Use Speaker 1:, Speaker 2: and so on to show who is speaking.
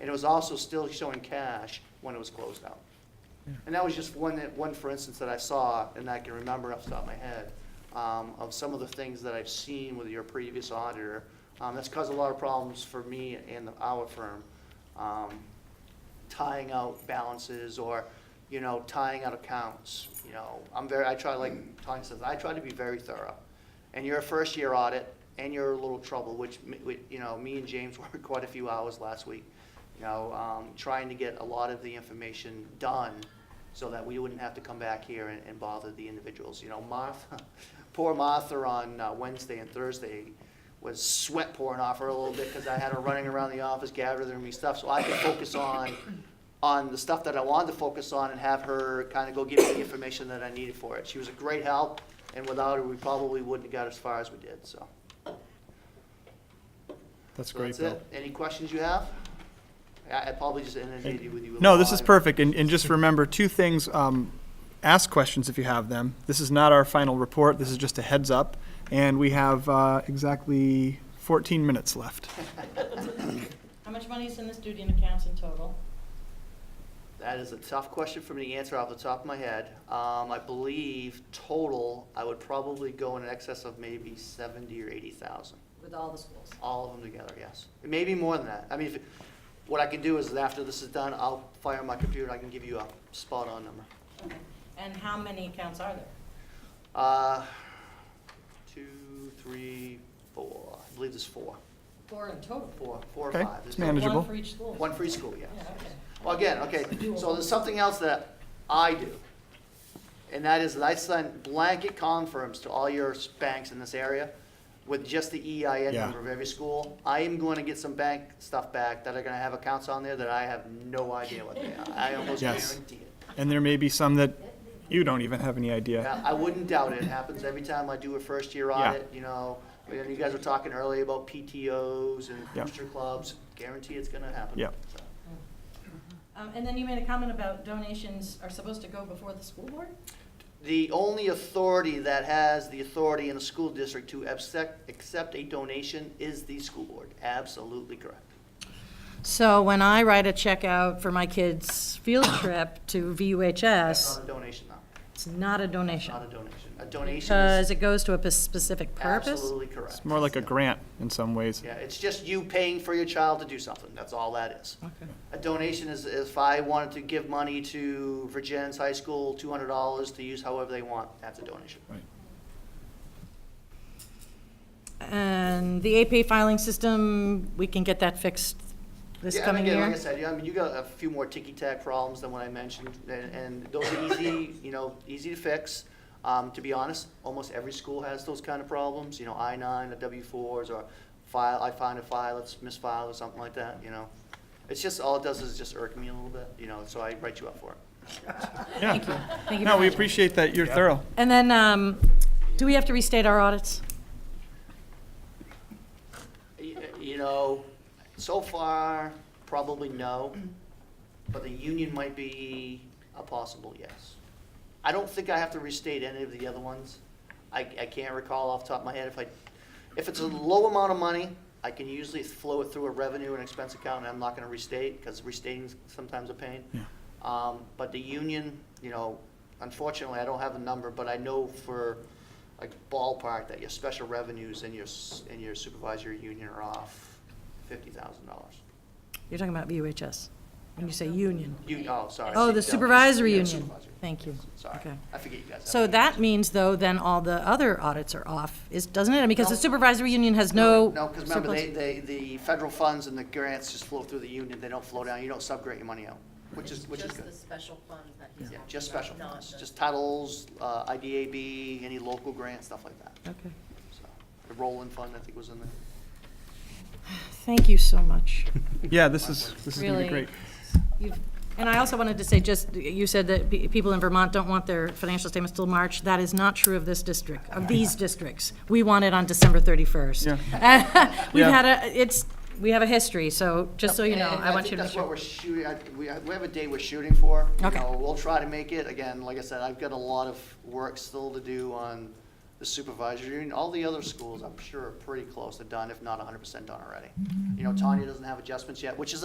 Speaker 1: and it was also still showing cash when it was closed out. And that was just one, that- one for instance that I saw, and I can remember off the top of my head, um, of some of the things that I've seen with your previous auditor. Um, that's caused a lot of problems for me and our firm, um, tying out balances or, you know, tying out accounts, you know. I'm very, I try, like Tanya says, I try to be very thorough. And your first year audit, and your little trouble, which, m- we- you know, me and James worked quite a few hours last week, you know, um, trying to get a lot of the information done so that we wouldn't have to come back here and, and bother the individuals. You know, Martha, poor Martha on uh, Wednesday and Thursday was sweat pouring off her a little bit because I had her running around the office gathering me stuff so I could focus on, on the stuff that I wanted to focus on and have her kind of go give me the information that I needed for it. She was a great help, and without her, we probably wouldn't have got as far as we did, so.
Speaker 2: That's
Speaker 1: So
Speaker 2: great,
Speaker 1: that's
Speaker 2: Bill.
Speaker 1: it. Any questions you have? I, I probably just inundated you with you. with a
Speaker 2: No, this is
Speaker 1: lot.
Speaker 2: perfect, and, and just remember two things, um, ask questions if you have them. This is not our final report, this is just a heads up, and we have, uh, exactly fourteen minutes left.
Speaker 3: How much money is in the student accounts in total?
Speaker 1: That is a tough question for me to answer off the top of my head. Um, I believe total, I would probably go in excess of maybe seventy or eighty thousand,
Speaker 3: With all the schools.
Speaker 1: all of them together, yes. Maybe more than that. I mean, if, it- what I can do is after this is done, I'll fire my computer, I can give you a spot-on number.
Speaker 3: Okay. And how many accounts are there?
Speaker 1: Uh, two, three, four, I believe there's four.
Speaker 3: Four in total?
Speaker 1: Four, four or
Speaker 2: Okay,
Speaker 1: five.
Speaker 2: it's
Speaker 1: There's no-
Speaker 2: Manageable.
Speaker 3: One for each school?
Speaker 1: One for each school, yes.
Speaker 3: Yeah, okay.
Speaker 1: Well, again, okay, so there's something else that I do. And that is that I send blanket confirms to all your s- banks in this area with just the EIN
Speaker 2: Yeah.
Speaker 1: number of every school. I am going to get some bank stuff back that are going to have accounts on there that I have no idea what they are. I almost
Speaker 2: Yes.
Speaker 1: guarantee it.
Speaker 2: And there may be some that you don't even have any idea.
Speaker 1: Now, I wouldn't doubt it. It happens every time I do a first year
Speaker 2: Yeah.
Speaker 1: audit, you know. And you guys were talking earlier about PTOs and
Speaker 2: Yeah.
Speaker 1: booster clubs. Guarantee it's going to happen.
Speaker 2: Yeah.
Speaker 1: So,
Speaker 3: Um, and then you made a comment about donations are supposed to go before the school board?
Speaker 1: The only authority that has the authority in a school district to accept, accept a donation is the school board. Absolutely correct.
Speaker 4: So when I write a check out for my kid's field trip to
Speaker 1: That's
Speaker 4: VUHS,
Speaker 1: not a donation, though.
Speaker 4: it's not a donation.
Speaker 1: Not a donation. A donation
Speaker 4: Because
Speaker 1: is
Speaker 4: it goes to a p- specific purpose.
Speaker 1: absolutely correct.
Speaker 2: It's more like a grant in some ways.
Speaker 1: Yeah, it's just you paying for your child to do something. That's all that is. A donation is if I wanted to give money to Virginia's High School, two hundred dollars to use however they want, that's a donation.
Speaker 4: And the APA filing system, we can get that fixed this
Speaker 1: Yeah, and
Speaker 4: coming
Speaker 1: again, Like
Speaker 4: year.
Speaker 1: I said, yeah, I mean, you got a few more ticky-tack problems than what I mentioned, and, and those are easy, you know, easy to fix. Um, to be honest, almost every school has those kind of problems, you know, I nine, the W fours, or file, I find a file, it's misfiled or something like that, you know? It's just, all it does is just irk me a little bit, you know, so I write you up for it.
Speaker 4: Thank you.
Speaker 2: Yeah.
Speaker 4: Thank you
Speaker 2: No, we
Speaker 4: very much.
Speaker 2: appreciate that, you're thorough.
Speaker 4: And then, um, do we have to restate our audits?
Speaker 1: Y- You know, so far, probably no, but the union might be a possible yes. I don't think I have to restate any of the other ones. I, I can't recall off the top of my head if I, if it's a low amount of money, I can usually flow it through a revenue and expense account, and I'm not gonna restate, because restating's sometimes a pain.
Speaker 2: Yeah.
Speaker 1: Um, but the union, you know, unfortunately, I don't have a number, but I know for like ballpark that your special revenues and your, s- and your supervisory union are off fifty thousand dollars.
Speaker 4: You're talking about VUHS, when you say union.
Speaker 1: You, oh, sorry.
Speaker 4: Oh, the supervisory
Speaker 1: Yeah,
Speaker 4: union.
Speaker 1: supervisory.
Speaker 4: Thank you.
Speaker 1: Sorry,
Speaker 4: Okay.
Speaker 1: I forget you guys. have
Speaker 4: So
Speaker 1: unions.
Speaker 4: that means, though, then all the other audits are off, is, doesn't it? Because the supervisory union has no.
Speaker 1: No, because remember, they,
Speaker 4: surplus.
Speaker 1: they, the federal funds and the grants just flow through the union, they don't flow down, you don't subgrade your money out, which is, which is
Speaker 5: Just
Speaker 1: good.
Speaker 5: the special fund that he's
Speaker 1: Yeah,
Speaker 5: talking
Speaker 1: just
Speaker 5: about,
Speaker 1: special
Speaker 5: not
Speaker 1: funds,
Speaker 5: the-
Speaker 1: just titles, uh, IDAB, any local grants, stuff like that,
Speaker 4: Okay.
Speaker 1: so. The rolling fund, I think, was in there.
Speaker 4: Thank you so much.
Speaker 2: Yeah, this is, this is gonna be
Speaker 4: Really.
Speaker 2: great.
Speaker 4: You've- And I also wanted to say, just, you said that pe- people in Vermont don't want their financial statements till March. That is not true of this district, of these districts. We want it on December 31st.
Speaker 2: Yeah.
Speaker 4: We've
Speaker 2: Yeah.
Speaker 4: had a, it's, we have a history, so, just so you know,
Speaker 1: And
Speaker 4: I want
Speaker 1: think
Speaker 4: you to be
Speaker 1: That's what
Speaker 4: sure.
Speaker 1: we're shooting, I, we, I- we have a day we're shooting for. You
Speaker 4: Okay.
Speaker 1: know, We'll try to make it, again, like I said, I've got a lot of work still to do on the supervisory union. All the other
Speaker 4: Mm-hmm.
Speaker 1: schools, I'm sure, are pretty close to done, if not hundred percent done already. You know, Tanya doesn't have adjustments yet, which is